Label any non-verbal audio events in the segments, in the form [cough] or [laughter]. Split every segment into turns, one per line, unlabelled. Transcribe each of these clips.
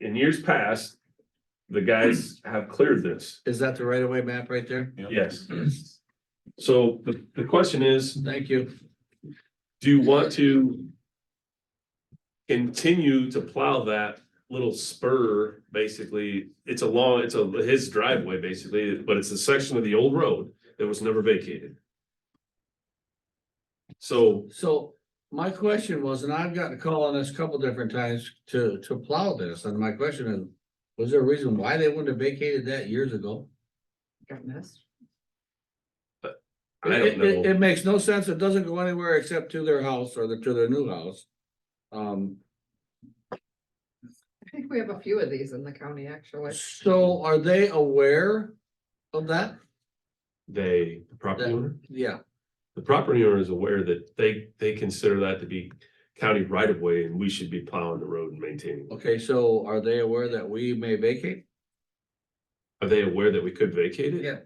in years past, the guys have cleared this,
Is that the right of way map right there?
Mm-hmm. yes. So the, the question is,
Thank you.
do you want to continue to plow that little spur, basically? It's a long, it's a, his driveway, basically, but it's a section of the old road that was never vacated. So,
So my question was, and I've gotten a call on this a couple different times to, to plow this, and my question is, was there a reason why they wouldn't have vacated that years ago?
I
It,
don't
it,
know,
it makes no sense. It doesn't go anywhere except to their house or the, to their new house. Um,
I think we have a few of these in the county, actually.
so are they aware of that?
they, the property owner?
Yeah,
The property owner is aware that they, they consider that to be county right of way and we should be plowing the road and maintaining. it.
okay, so are they aware that we may vacate?
Are they aware that we could vacate it?
Yeah.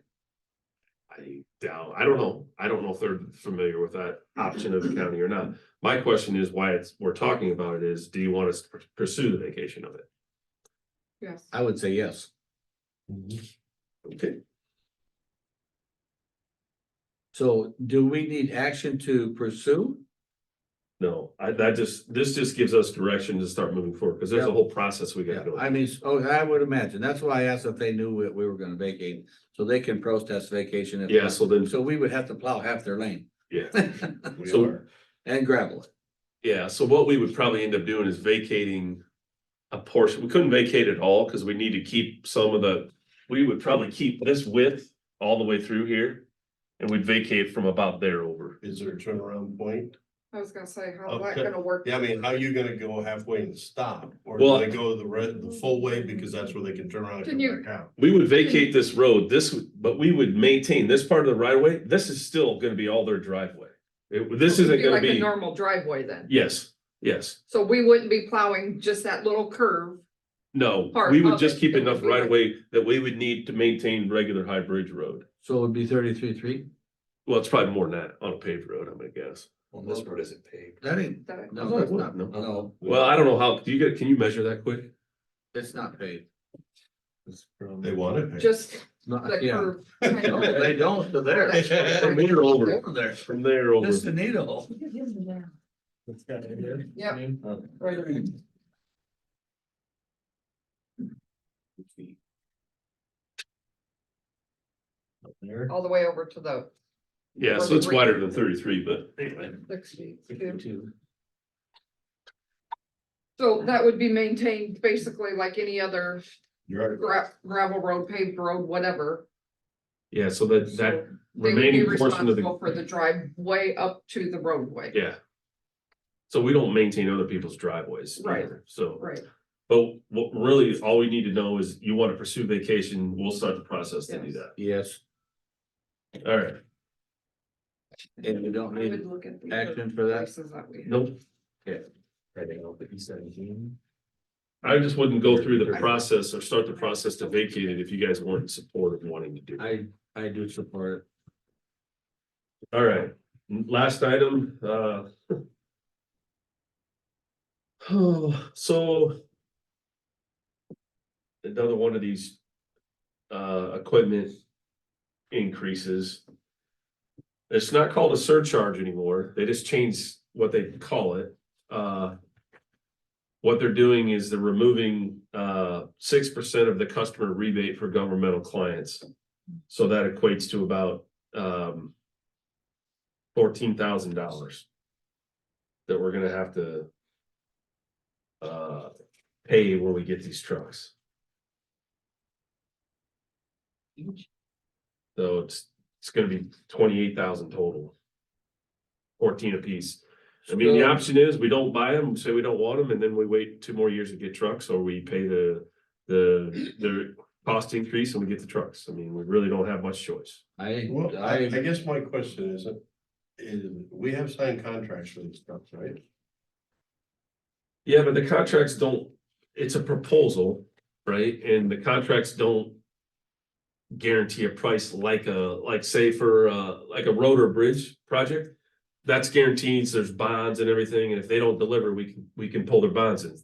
I doubt, I don't know. I don't know if they're familiar with that option of the county or not. My question is why it's, we're talking about it is, do you want us to pursue the vacation of it?
Yes.
I would say yes. Mm-hmm.
Okay,
So do we need action to pursue?
no, I, that just, this just gives us direction to start moving forward because there's a
Yeah.
whole process we gotta
Yeah,
go.
I mean, s- oh, I would imagine. That's why I asked if they knew we, we were gonna vacate, so they can protest vacation. if-
Yeah, so then,
So we would have to plow half their lane [laughs]
yeah. So-
and gravel it.
Yeah, so what we would probably end up doing is vacating a portion. We couldn't vacate it all because we need to keep some of the, we would probably keep this width all the way through here. And we'd vacate from about there over.
Is there a turnaround point?
I was gonna say, how's that
Okay.
gonna work?
Yeah, I mean, how you gonna go halfway and stop? Or
Well-
do they go the red, the full way because that's where they can turn around
Can
and
you-
come back out?
We would vacate this road, this, but we would maintain this part of the right of way. This is still gonna be all their driveway. It- this isn't
Be
gonna
like a
be,
normal driveway then.
yes, yes.
So we wouldn't be plowing just that little curve.
No,
Part
we would
of
just
it,
keep
it would
enough
be like-
right of way that we would need to maintain regular high bridge road.
So it would be thirty-three, three.
Well, it's probably more than that on a paved road, I'm gonna guess.
Well, this road isn't paved.
That ain't,
that it-
no, that's not, no,
Well, I don't know how, do you get, can you measure that quick?
it's not paved.
They want it.
Just the
Not, yeah.
[laughs]
curve. kind
No,
of.
they don't, to there.
From
there over.
[laughs] Over there.
From there over.
Just a needle.
Yep. All the way over to the
Yeah, so it's wider than thirty-three, but anyway,
six feet. So that would be maintained basically like any other
You're right.
gra- gravel road, paved road, whatever.
yeah, so that, that
So They would be
remaining portion of
responsible for the
the,
driveway up to the roadway.
yeah. So we don't maintain other people's driveways
Right.
either, so,
Right,
but what really, all we need to know is you wanna pursue vacation, we'll start the process to do
Yes.
that.
Yes,
Alright,
and we don't
I would
need
look at the other
action for that.
places that we have.
nope,
Heading out the east seventeen.
I just wouldn't go through the process or start the process to vacate it if you guys weren't in support of wanting to do. it.
I, I do support it.
All right, n- last item, uh. [sighs] so. Another one of these, uh, equipment increases. It's not called a surcharge anymore. They just changed what they call it. Uh. What they're doing is they're removing, uh, six percent of the customer rebate for governmental clients. So that equates to about, um fourteen thousand dollars. That we're gonna have to. Uh, pay when we get these trucks. So it's, it's gonna be twenty-eight thousand total. Fourteen apiece. I mean, the
Still-
option is we don't buy them, say we don't want them, and then we wait two more years to get trucks, or we pay the, the, the cost increase and we get the trucks. I mean, we really don't have much choice.
I,
Well, I, I
I,
guess my question is, is we have signed contracts for these stuff, right?
Yeah, but the contracts don't, it's a proposal, right? And the contracts don't. Guarantee a price like a, like say for uh, like a road or bridge project. That's guarantees, there's bonds and everything, and if they don't deliver, we can, we can pull their bonds and